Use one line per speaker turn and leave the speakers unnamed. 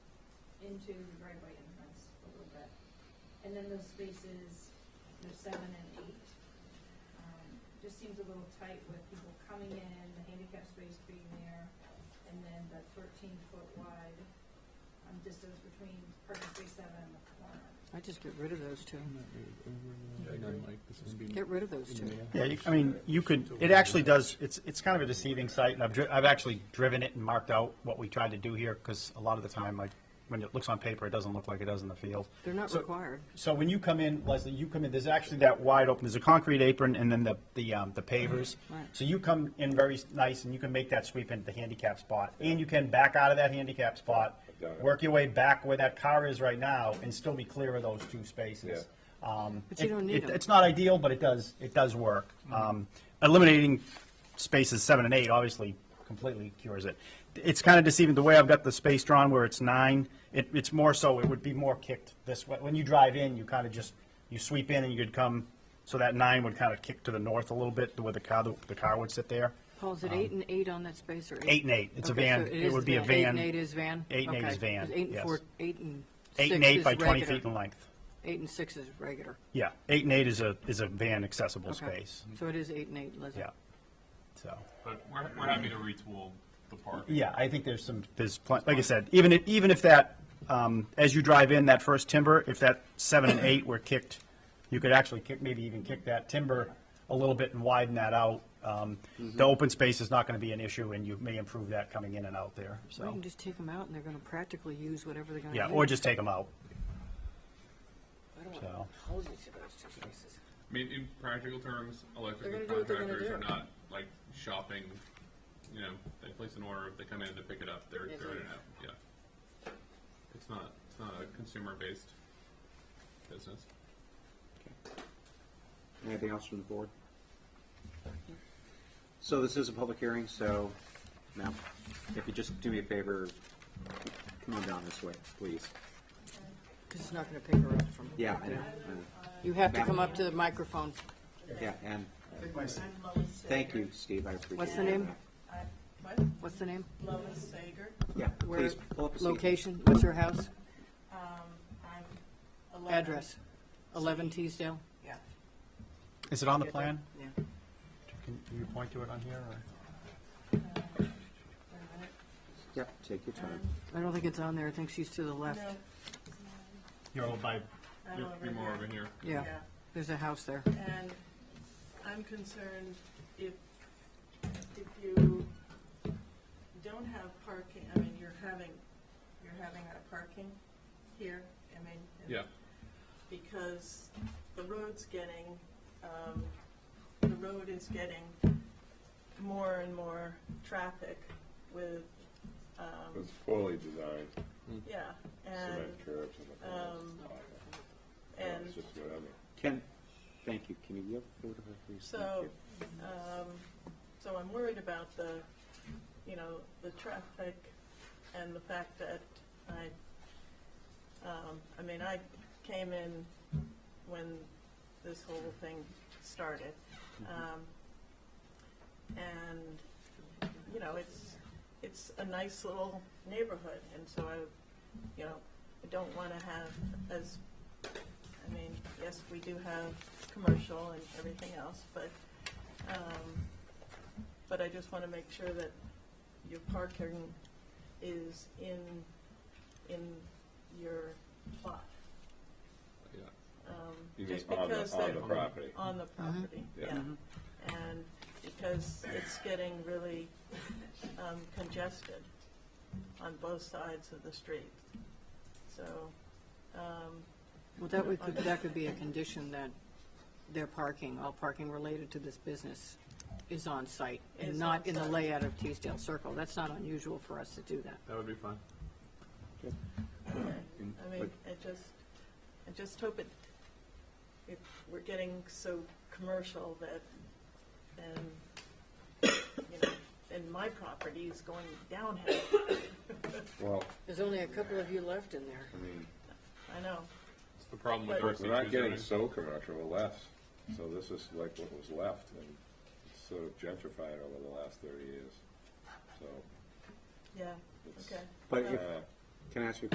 into the driveway entrance a little bit. And then those spaces, you know, seven and eight, um, just seems a little tight with people coming in, the handicap space being there, and then the thirteen foot wide, um, distance between parking space seven and the corner.
I just get rid of those two.
I agree, Mike, this is being
Get rid of those
in
two.
the mail.
Yeah, you, I mean, you could, it actually does, it's, it's kind of a deceiving site, and I've, dri- I've actually driven it and marked out what we tried to do here, because a lot of the time, like, when it looks on paper, it doesn't look like it does in the field.
They're not
So-
required.
So when you come in, Leslie, you come in, there's actually that wide open, there's a concrete apron and then the, the, um, the pavers.
Right.
So you come in very s- nice and you can make that sweep into the handicap spot. And you can back out of that handicap spot,
Got it.
work your way back where that car is right now and still be clear of those two spaces. Um,
But you
it-
don't need Mm-hmm.
it-
'em.
It's not ideal, but it does, it does work. Um, eliminating spaces seven and eight obviously completely cures it. It's kind of deceiving, the way I've got the space drawn where it's nine, it, it's more so, it would be more kicked this way. When you drive in, you kind of just, you sweep in and you could come, so that nine would kind of kick to the north a little bit, where the car, the car would sit there.
Paul, is it eight and eight on that space or?
um, Eight and eight, it's a
Okay,
van,
so
it
is
would
the
be a
Eight and eight
van,
is van?
Eight and eight
Okay,
is van,
'cause Eight and
yes.
four, eight and
eight and
six
eight
is
by twenty
regular.
feet in length.
Eight and six is regular.
Yeah, eight and eight is a, is a van accessible
Okay.
space,
So it is eight and eight, Leslie.
yeah, so.
But we're, we're happy to retool the park.
Yeah, I think there's some, there's plenty, like I said, even if, even if that, um, as you drive in that first timber, if that seven and eight were kicked, you could actually kick, maybe even kick that timber a little bit and widen that out. Um, the open space is not gonna be an issue and you may improve that coming in and out there,
Or you
so.
can just take them out and they're going to practically use whatever they're going to
Yeah,
use.
or just take them out,
I don't want
so.
houses to those two spaces.
I mean, in practical terms, electrical
They're gonna do what they're gonna
contractors are
do.
not like shopping, you know, they place an order, if they come in, they pick it up, they're
Yes,
throwing
yes.
it out, yeah. It's not, it's not a consumer-based business.
Anything else from the board? So this is a public hearing, so now, if you just do me a favor, come on down this way, please.
Because it's not going to pick her up from.
Yeah, I know, I
You have to come up to the microphone.
know. Yeah, and thank you, Steve, I appreciate it.
What's the name?
I- What?
What's the name?
Lois Sager.
Yeah,
Where-
please, pull up a seat.
Location? What's your house?
I'm 11.
Address? 11 Teasdale?
Yeah.
Is it on the plan?
Yeah.
Can you point to it on here or?
Wait a minute.
Yeah, take your time.
I don't think it's on there. I think she's to the left.
No,
You're all by,
I'm
You're,
over
you're more over
here.
here.
Yeah,
Yeah.
there's a house there.
And I'm concerned if, if you don't have parking, I mean, you're having, you're having a parking here, I mean. and-
Yeah,
Because the road's getting, um, the road is getting more and more traffic with, um,
It's fully designed,
yeah, and,
cement curbs and the whole
um,
lot.
and
It's just whatever.
Can, thank you, can you yield the floor to her, please? Thank
So,
you.
um, so I'm worried about the, you know, the traffic and the fact that I, um, I mean, I came in when this whole thing started.
Mm-hmm.
Um, and, you know, it's, it's a nice little neighborhood, and so I, you know, I don't wanna have as I mean, yes, we do have commercial and everything else, but, um, but I just want to make sure that your parking is in, in your plot.
yeah.
um,
You mean
Just
on the-
because
on
they're.
the property?
On the property, yeah.
Yeah.
And because it's getting really um, congested on both sides of the street. So, um,
Well, that would, could- that could be a condition that their parking, all parking related to this business is on site and
Is
not
on
in the
site.
layout of Teasdale Circle. That's not unusual for us to do that.
That would be fine.
I mean, I just, I just hope it, it, we're getting so commercial that, and, you know, and my property is going downhill,
Well,
There's only a couple of you left in there.
I mean,
I know.
It's the problem with
But-
RC
we're not getting
two
so commercial, we're less. So this is like what was left and it's sort of gentrified over the last thirty years. So,
Yeah, okay.
But if, can I ask you a